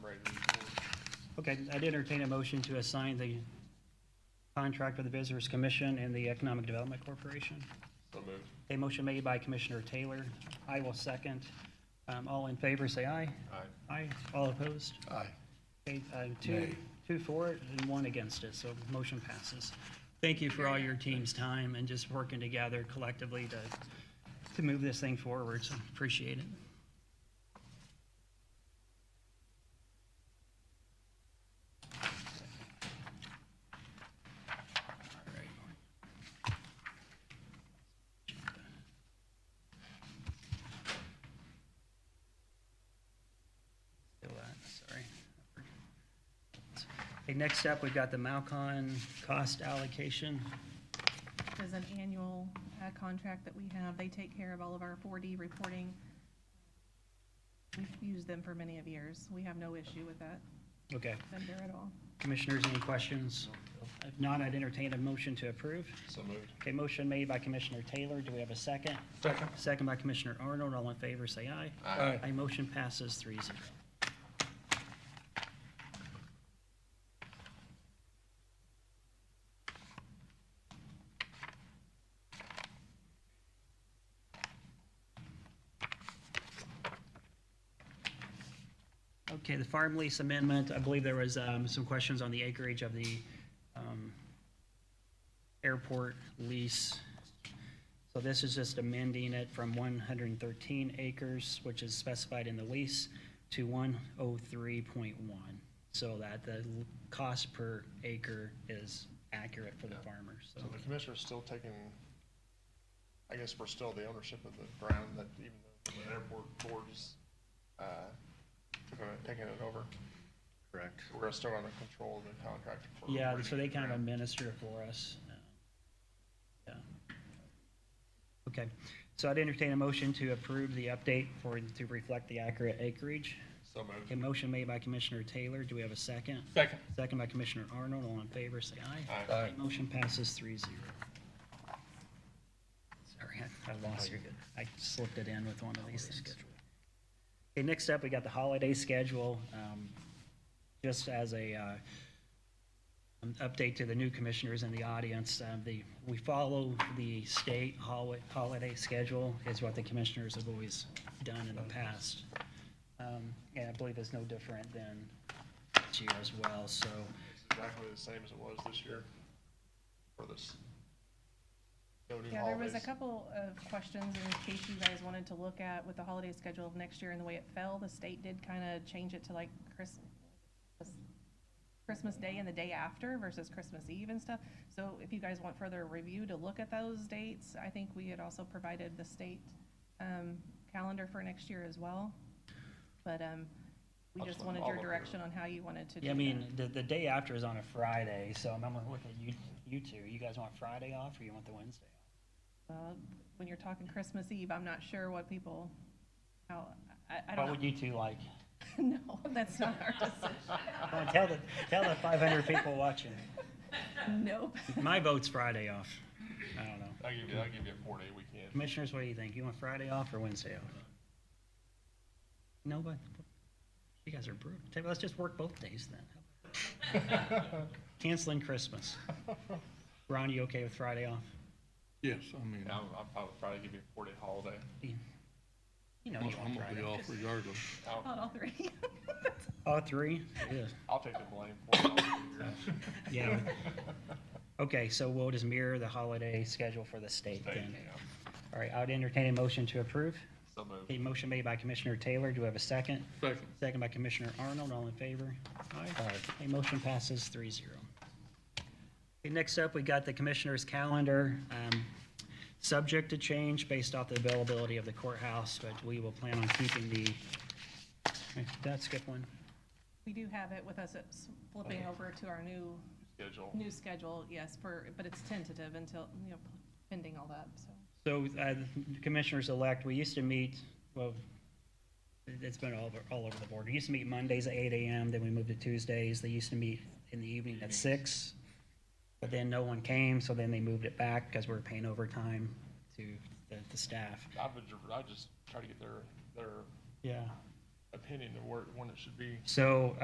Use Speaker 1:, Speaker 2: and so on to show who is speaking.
Speaker 1: Okay, I'd entertain a motion to assign the contract with the Visitors Commission and the Economic Development Corporation.
Speaker 2: So moved.
Speaker 1: A motion made by Commissioner Taylor. I will second. Um, All in favor, say aye.
Speaker 2: Aye.
Speaker 1: Aye. All opposed?
Speaker 3: Aye.
Speaker 1: Okay, uh, two,
Speaker 3: Nay.
Speaker 1: two for it and one against it, so motion passes. Thank you for all your team's time and just working together collectively to, to move this thing forward, so appreciate it. Do that, sorry. Okay, next up, we've got the Malcon cost allocation.
Speaker 4: is an annual uh, contract that we have. They take care of all of our 4D reporting. We've used them for many of years. We have no issue with that
Speaker 1: Okay,
Speaker 4: vendor at all.
Speaker 1: commissioners, any questions? If not, I'd entertain a motion to approve.
Speaker 2: So moved.
Speaker 1: Okay, motion made by Commissioner Taylor. Do we have a second?
Speaker 3: Second.
Speaker 1: Second by Commissioner Arnold. All in favor, say aye.
Speaker 3: Aye.
Speaker 1: Aye, motion passes three zero. Okay, the farm lease amendment, I believe there was um, some questions on the acreage of the um, airport lease. So this is just amending it from 113 acres, which is specified in the lease, to 103.1, so that the l- cost per acre is accurate for the farmer, so.
Speaker 2: So the commissioner's still taking, I guess we're still the ownership of the ground that even though the airport board is, uh, took it- taking it over.
Speaker 3: Correct.
Speaker 2: We're still under control of the contractor. for
Speaker 1: Yeah, so
Speaker 2: renting
Speaker 1: they
Speaker 2: the
Speaker 1: kind of
Speaker 2: ground.
Speaker 1: administer it for us. Yeah. Okay, so I'd entertain a motion to approve the update for, to reflect the accurate acreage.
Speaker 2: So moved.
Speaker 1: A motion made by Commissioner Taylor, do we have a second?
Speaker 2: Second.
Speaker 1: Second by Commissioner Arnold, all in favor, say aye.
Speaker 2: Aye.
Speaker 3: Aye.
Speaker 1: Motion passes three zero. Sorry, I- I lost you. I slipped it in with one of these things. Okay, next up, we got the holiday schedule. um, Just as a, uh, an update to the new commissioners in the audience, um, the, we follow the state holi- holiday schedule is what the commissioners have always done in the past. Um, And I believe it's no different than this year as well, so.
Speaker 2: It's exactly the same as it was this year for this. No new
Speaker 4: Yeah, there was a
Speaker 2: holidays.
Speaker 4: couple of questions in case you guys wanted to look at with the holiday schedule of next year and the way it fell. The state did kind of change it to like Chris, Christmas Day and the day after versus Christmas Eve and stuff. So if you guys want further review to look at those dates, I think we had also provided the state um, calendar for next year as well. But um, we
Speaker 2: I'll
Speaker 4: just
Speaker 2: just let
Speaker 4: wanted
Speaker 2: them all
Speaker 4: your
Speaker 2: look at it.
Speaker 4: direction on how you wanted to do
Speaker 1: Yeah, I mean,
Speaker 4: that.
Speaker 1: the, the day after is on a Friday, so I'm gonna look at you, you two. You guys want Friday off or you want the Wednesday? off?
Speaker 4: Well, Uh, When you're talking Christmas Eve, I'm not sure what people, how, I, I
Speaker 1: What
Speaker 4: don't know.
Speaker 1: would you two like?
Speaker 4: No, that's not our decision.
Speaker 1: Come on, tell the, tell the five hundred people watching.
Speaker 4: Nope.
Speaker 1: My vote's Friday off. I don't know.
Speaker 2: I'll give you, I'll give you a four-day weekend.
Speaker 1: Commissioners, what do you think? You want Friday off or Wednesday off? Nobody? You guys are brutal. Tell you what, Let's just work both days then. Canceling Christmas. Ron, you okay with Friday off?
Speaker 3: Yes, I mean,
Speaker 2: Yeah, I'll, I'll probably try to give you a four-day holiday.
Speaker 1: You you know
Speaker 3: I'm
Speaker 1: you want
Speaker 3: I'm gonna be
Speaker 1: Friday.
Speaker 3: off regardless.
Speaker 2: I'll,
Speaker 4: Not all three.
Speaker 1: All three? Yeah.
Speaker 2: I'll take the blame for it. I'll-
Speaker 1: Yeah. Okay, so we'll just mirror the holiday schedule for the state then.
Speaker 2: Yeah.
Speaker 1: All right, I would entertain a motion to approve.
Speaker 2: So moved.
Speaker 1: A motion made by Commissioner Taylor. Do we have a second?
Speaker 3: Second.
Speaker 1: Second by Commissioner Arnold. All in favor?
Speaker 3: Aye.
Speaker 1: A motion passes 3-0. Okay, next up, we got the commissioner's calendar, um, subject to change based off the availability of the courthouse, but we will plan on keeping the, that's a good one.
Speaker 4: We do have it with us it's flipping over to our new,
Speaker 2: Schedule.
Speaker 4: new schedule, yes, for, but it's tentative until, you know, pending all that, so.
Speaker 1: So, uh, commissioners-elect, we used to meet, well, it's been all over, all over the board. We used to meet Mondays at eight AM, then we moved to Tuesdays. They used to meet in the evening at six. But then no one came, so then they moved it back because we were paying overtime to the, the staff.
Speaker 2: I would, I just try to get their, their
Speaker 1: Yeah.
Speaker 2: opinion of where, when it should be.
Speaker 1: So,